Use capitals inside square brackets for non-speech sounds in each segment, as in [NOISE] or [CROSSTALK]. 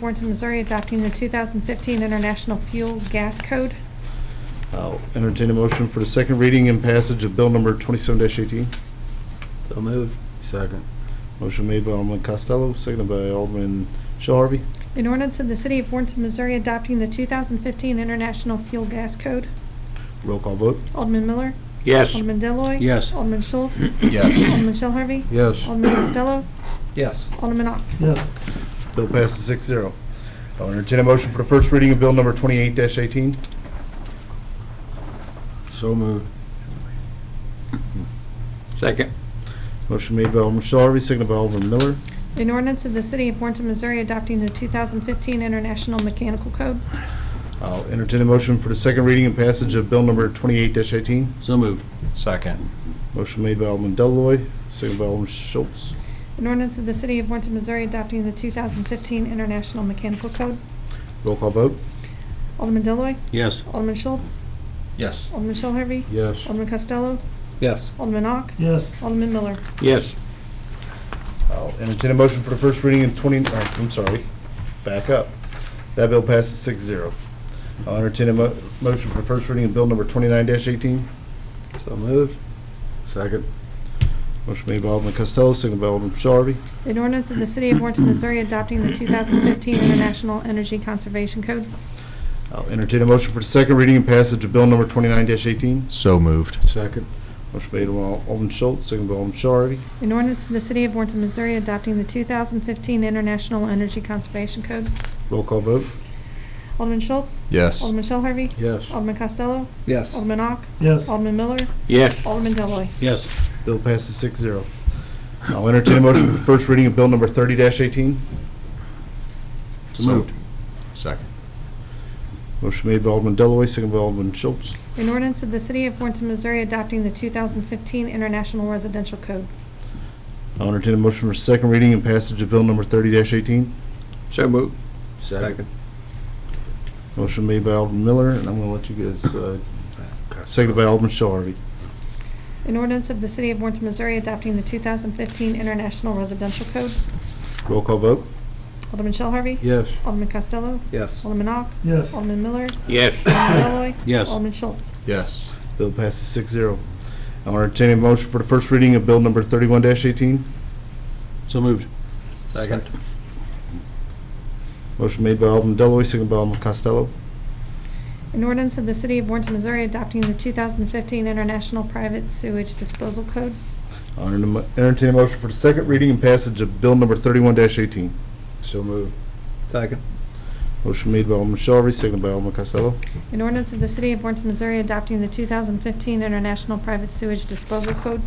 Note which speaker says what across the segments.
Speaker 1: Warrenton, Missouri adopting the 2015 International Fuel Gas Code.
Speaker 2: I'll entertain a motion for the second reading and passage of bill number 27-18.
Speaker 3: So moved. Second.
Speaker 2: Motion made by Alderman Costello, seconded by Alderman Shell Harvey.
Speaker 1: An ordinance of the City of Warrenton, Missouri adopting the 2015 International Fuel Gas Code.
Speaker 2: Roll call vote.
Speaker 1: Alderman Miller.
Speaker 4: Yes.
Speaker 1: Alderman Deloy,
Speaker 3: Yes.
Speaker 1: Alderman Schultz.
Speaker 2: Yes.
Speaker 1: Alderman Shell Harvey.
Speaker 3: Yes.
Speaker 1: Alderman Costello.
Speaker 3: Yes.
Speaker 1: Alderman Ock.
Speaker 2: Yes. Bill passes 6-0. zero. I'll entertain a motion for the first reading of bill number 28-18.
Speaker 3: So moved.
Speaker 4: Second.
Speaker 2: Motion made by Alderman Shell Harvey, seconded by Alderman Miller.
Speaker 1: An ordinance of the City of Warrenton, Missouri adopting the 2015 International Mechanical Code.
Speaker 2: I'll entertain a motion for the second reading and passage of bill number 28-18.
Speaker 3: So moved. Second.
Speaker 2: Motion made by Alderman Deloy, seconded by Alderman Schultz.
Speaker 1: An ordinance of the City of Warrenton, Missouri adopting the 2015 International Mechanical Code.
Speaker 2: Roll call vote.
Speaker 1: Alderman Deloy,
Speaker 3: Yes.
Speaker 1: Alderman Schultz.
Speaker 3: Yes.
Speaker 1: Alderman Shell Harvey.
Speaker 3: Yes.
Speaker 1: Alderman Costello.
Speaker 3: Yes.
Speaker 1: Alderman Ock.
Speaker 5: Yes,
Speaker 1: Alderman Miller.
Speaker 4: Yes.
Speaker 2: I'll entertain a motion for the first reading in 20, uh, I'm sorry, back up. That bill passes 6-0. zero. I'll entertain a mo- motion for the first reading in bill number 29-18.
Speaker 3: So moved. Second.
Speaker 2: Motion made by Alderman Costello, seconded by Alderman Shelby.
Speaker 1: An ordinance of the City of Warrenton, Missouri adopting the 2015 International Energy Conservation Code.
Speaker 2: I'll entertain a motion for the second reading and passage of bill number 29-18.
Speaker 6: So moved.
Speaker 3: Second.
Speaker 2: Motion made by Alderman Schultz, seconded by Alderman Shelby.
Speaker 1: An ordinance of the City of Warrenton, Missouri adopting the 2015 International Energy Conservation Code.
Speaker 2: Roll call vote.
Speaker 1: Alderman Schultz.
Speaker 6: Yes.
Speaker 1: Alderman Shell Harvey.
Speaker 3: Yes.
Speaker 1: Alderman Costello.
Speaker 3: Yes.
Speaker 1: Alderman Ock.
Speaker 5: yes,
Speaker 1: Alderman Miller.
Speaker 4: Yes.
Speaker 1: Alderman Deloy.
Speaker 3: Yes.
Speaker 2: Bill passes 6-0. zero. I'll entertain a motion for the first reading of bill number 30-18.
Speaker 3: So moved.
Speaker 6: Second.
Speaker 2: Motion made by Alderman Delloy, seconded by Alderman Schultz.
Speaker 1: An ordinance of the City of Warrenton, Missouri adopting the 2015 International Residential Code.
Speaker 2: I'll entertain a motion for second reading and passage of bill number thirty eighteen.
Speaker 4: So moved.
Speaker 3: Second.
Speaker 2: Motion made by Alderman Miller, and I'm gonna let you guys, uh, seconded by Alderman Shaw Harvey.
Speaker 1: An ordinance of the City of Warrenton, Missouri adopting the 2015 International Residential Code.
Speaker 2: Roll call vote.
Speaker 1: Alderman Shell Harvey.
Speaker 3: Yes.
Speaker 1: Alderman Costello.
Speaker 3: Yes.
Speaker 1: Alderman Ock.
Speaker 5: yes,
Speaker 1: Alderman Miller.
Speaker 4: Yes.
Speaker 1: Alderman Deloy,
Speaker 3: [COUGHS] Yes.
Speaker 1: Alderman Schultz.
Speaker 6: Yes.
Speaker 2: Bill passes six zero. I'll entertain a motion for the first reading of bill number thirty-one eighteen.
Speaker 3: So moved. Second.
Speaker 2: Motion made by Alderman Delloy, seconded by Alderman Costello.
Speaker 1: An ordinance of the City of Warrenton, Missouri adopting the 2015 International Private Sewage Disposal Code.
Speaker 2: I'll enter- entertain a motion for the second reading and passage of bill number thirty-one eighteen.
Speaker 3: So moved. Second.
Speaker 2: Motion made by Alderman Shaw Harvey, seconded by Alderman Costello.
Speaker 1: An ordinance of the City of Warrenton, Missouri adopting the 2015 International Private Sewage Disposal Code.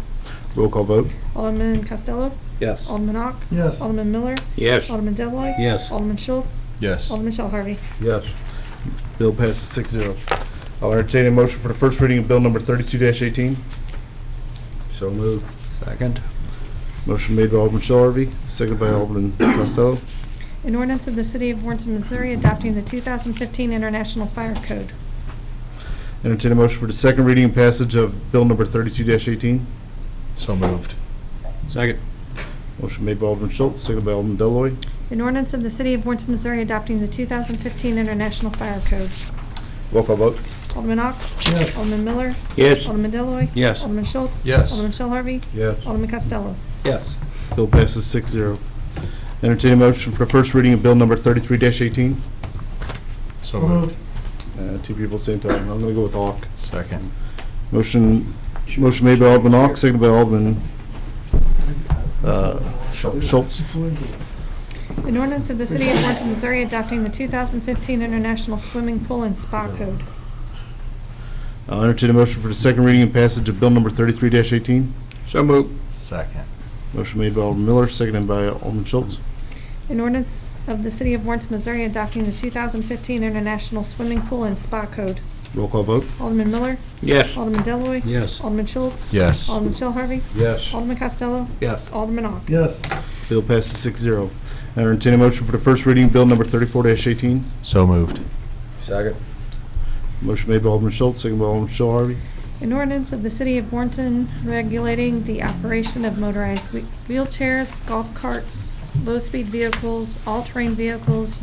Speaker 2: Roll call vote.
Speaker 1: Alderman Costello.
Speaker 3: Yes.
Speaker 1: Alderman Ock.
Speaker 5: yes,
Speaker 1: Alderman Miller.
Speaker 4: Yes.
Speaker 1: Alderman Deloy,
Speaker 3: Yes.
Speaker 1: Alderman Schultz.
Speaker 6: Yes.
Speaker 1: Alderman Shell Harvey.
Speaker 3: Yes.
Speaker 2: Bill passes six zero. I'll entertain a motion for the first reading of bill number thirty-two eighteen.
Speaker 3: So moved. Second.
Speaker 2: Motion made by Alderman Shell Harvey, seconded by Alderman Costello.
Speaker 1: An ordinance of the City of Warrenton, Missouri adopting the 2015 International Fire Code.
Speaker 2: Entertain a motion for the second reading and passage of bill number thirty-two eighteen.
Speaker 6: So moved.
Speaker 3: Second.
Speaker 2: Motion made by Alderman Schultz, seconded by Alderman Deloy.
Speaker 1: An ordinance of the City of Warrenton, Missouri adopting the 2015 International Fire Code.
Speaker 2: Roll call vote.
Speaker 1: Alderman Ock.
Speaker 5: yes,
Speaker 1: Alderman Miller.
Speaker 4: Yes.
Speaker 1: Alderman Deloy,
Speaker 3: Yes.
Speaker 1: Alderman Schultz.
Speaker 6: Yes.
Speaker 1: Alderman Shell Harvey.
Speaker 3: Yes.
Speaker 1: Alderman Costello.
Speaker 3: Yes.
Speaker 2: Bill passes six zero. Entertain a motion for the first reading of bill number thirty-three eighteen.
Speaker 6: So
Speaker 5: So moved.
Speaker 6: moved.
Speaker 2: Uh, two people at the same time. I'm gonna go with Hawk.
Speaker 6: Second.
Speaker 2: Motion, motion made by Alderman Hawk, seconded by Alderman, uh, Schultz.
Speaker 1: An ordinance of the City of Warrenton, Missouri adopting the 2015 International Swimming Pool and Spa Code.
Speaker 2: I'll entertain a motion for the second reading and passage of bill number thirty-three eighteen.
Speaker 4: So moved.
Speaker 6: Second.
Speaker 2: Motion made by Alderman Miller, seconded by Alderman Schultz.
Speaker 1: An ordinance of the City of Warrenton, Missouri adopting the 2015 International Swimming Pool and Spa Code.
Speaker 2: Roll call vote.
Speaker 1: Alderman Miller.
Speaker 4: Yes.
Speaker 1: Alderman Deloy,
Speaker 3: Yes.
Speaker 1: Alderman Schultz.
Speaker 6: Yes.
Speaker 1: Alderman Shell Harvey.
Speaker 3: Yes.
Speaker 1: Alderman Costello.
Speaker 3: Yes.
Speaker 1: Alderman Ock.
Speaker 5: yes,
Speaker 2: Bill passes six zero. I entertain a motion for the first reading of bill number thirty-four eighteen.
Speaker 6: So moved.
Speaker 3: Second.
Speaker 2: Motion made by Alderman Schultz, second by Alderman Shell Harvey.
Speaker 1: An ordinance of the City of Warrenton regulating the operation of motorized whe- wheelchairs, golf carts, low-speed vehicles, all-terrain vehicles,